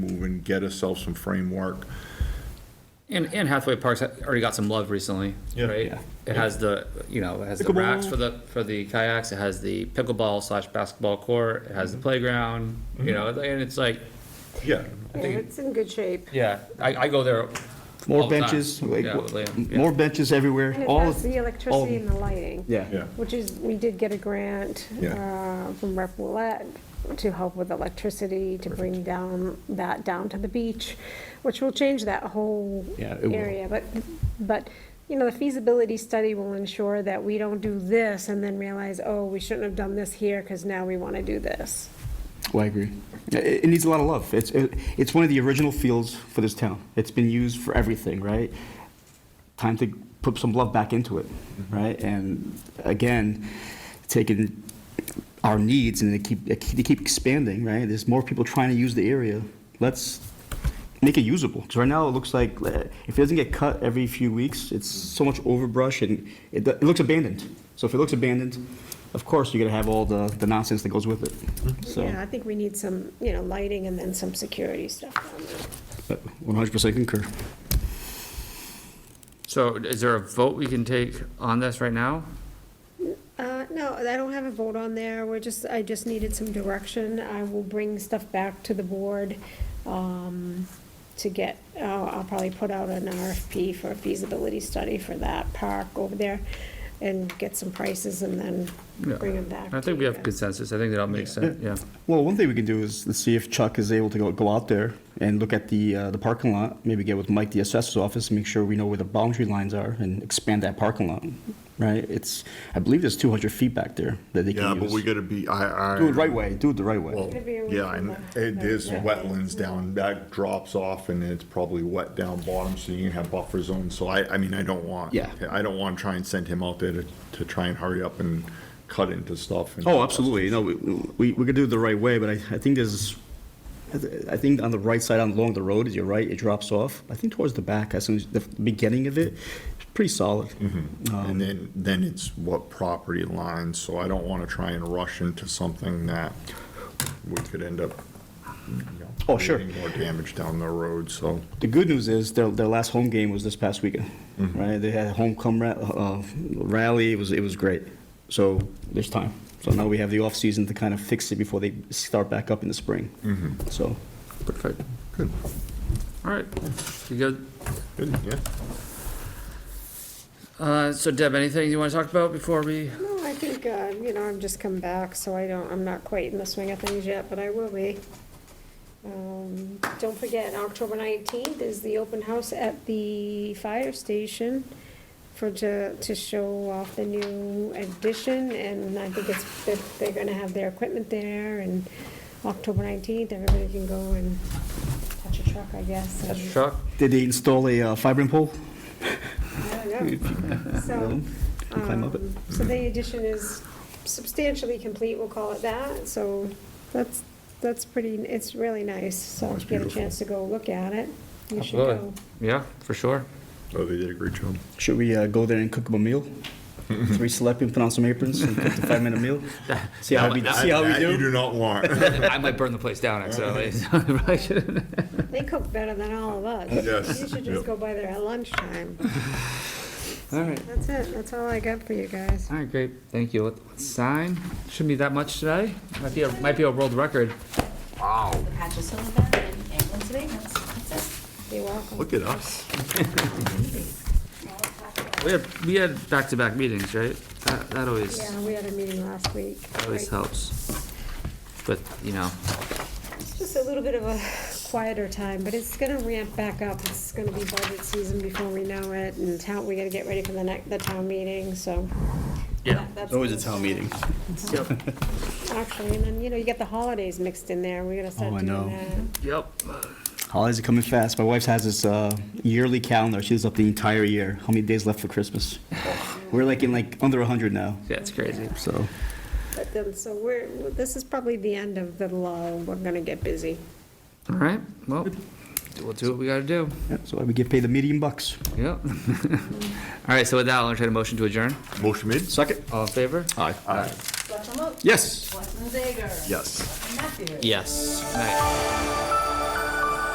get ourselves some framework. And, and Hathaway Park's already got some love recently, Yeah. right? Yeah. It has the, you know, it has the racks Pickleball. for the, for the kayaks, it has the pickleball slash basketball court, it Mm-hmm. has the playground, you know, and it's like, Yeah, Yeah, it's in good shape. yeah, I, I go there. all More the time. benches, like, Yeah, with Liam, yeah. more benches everywhere, And it all. has the electricity and all- the lighting. Yeah. yeah. Which is, we did get a grant Yeah. uh, from Rep. Willett to help with electricity, to bring down, that down to the beach, which will change that whole Yeah, it will. area. But, but, you know, the feasibility study will ensure that we don't do this and then realize, oh, we shouldn't have done this here because now we want to do this. Well, I agree. It, it needs a lot of love. It's, it, it's one of the original fields for this town. It's been used for everything, right? Time to put some love back into it, right? And again, taking our needs and they keep, they keep they keep expanding, right? There's more people trying to use the area. Let's make it usable. Because right now it looks like uh, if it doesn't get cut every few weeks, it's so much overbrush and it, do- it looks abandoned. So if it looks abandoned, of course you're gonna have all the, the nonsense that goes with it. So. Yeah, I think we need some, you know, lighting and then some security stuff down there. Uh, One hundred percent concur. So is there a vote we can take on this right now? Uh, no, I don't have a vote on there, we're just, I just needed some direction, I will bring stuff back to the board, um, to get, uh, I'll probably put out an RFP for a feasibility study for that park over there, and get some prices and then Yeah. bring them back. I think to we you have guys. consensus, I think that all makes sense, yeah. Well, one thing we can do is let's see if Chuck is able to go, go out there and look at the, uh, the parking lot, maybe get with Mike, the assessor's office, make sure we know where the boundary lines are and expand that parking lot, right? It's, I believe there's two hundred feet back there that they Yeah, can but we use. gotta be, I, I. Do it right way, do it the right way. Well, Could be a yeah, reasonable- and It is wetlands down, that drops off and it's probably wet down bottom, so you have buffer zones. So I, I mean, I don't want. Yeah. I don't want to try and send him out there to, to try and hurry up and cut into stuff. and- Oh, absolutely, no, we, we, we could do it the right way, but I, I think there's, I th- I think on the right side, on along the road, is you're right, it drops off. I think towards the back, as soon as, the beginning of it, it's pretty solid. Mm-hmm. Um, And then, then it's what property lines, so I don't want to try and rush into something that we could end up. you know, Oh, sure. creating More damage down the road, so. The good news is their, their last home game was this past weekend, Mm-hmm. right? They had a homecoming ra- uh, rally. It was it was great. So there's time. So now we have the off season to kind of fix it before they start back up in the spring. Mm-hmm. So Perfect. All right, you good? Good, yeah. Uh, so Deb, anything you wanna talk about before we? No, I think, uh, you know, I'm just come back, so I don't, I'm not quite in the swing of things yet, but I will be. Um, Don't forget, October nineteenth is the open house at the fire station for, to, to show off the new addition, and I think it's, that they're gonna have their equipment there, and October nineteenth, everybody can go and touch a truck, I guess. and- Chuck? did they install a uh, fibrin pole? I don't know. So, Can climb up it. um, so the addition is substantially complete, we'll call it that, so that's, that's pretty, it's really nice, so if you get a chance to go look at it, you should Absolutely. go. Yeah, for sure. Oh, they did a great job. Should we uh, go there and cook them a meal? Three selectmen put on some aprons and cook the five minute meal. See how we see how we That You do. do not want. I might burn the place down, actually. They cook better than all of us. Yes, You should yep. just go by there at lunchtime. All right. That's it, that's all I got for you guys. All right, great, thank you. Let's Sign, shouldn't be that much today. Might be, a might be a world record. the patch of silver and ambulance abatements, that's it. You're welcome. Look at us. We had, we had back-to-back meetings, right? That, that always, Yeah, we had a meeting last week. always Like, helps. But, you know, It's just a little bit of a quieter time, but it's gonna ramp back up. It's gonna be budget season before we know it, and town, we gotta get ready for the next, the town meeting, so. yeah. That's Always a town meeting. Yep. Actually, and then, you know, you get the holidays mixed in there. We gotta Oh, I start doing know. that. Yep. Holidays are coming fast. My wife has this uh, yearly calendar. She's up the entire year. How many days left for Christmas? We're like in like under 100 now. Yeah, it's crazy. So But then, so we're, this is probably the end of the lull. We're gonna get busy. All right, well, we'll do what we gotta do. yeah, so we get paid the medium bucks. Yep. All right, so with that, I'll entertain a motion to adjourn. Motion made? Second. All in favor? Aye. Selectman Lopes? Yes. Selectman Zager? Yes. Selectman Matthews? Yes. Night.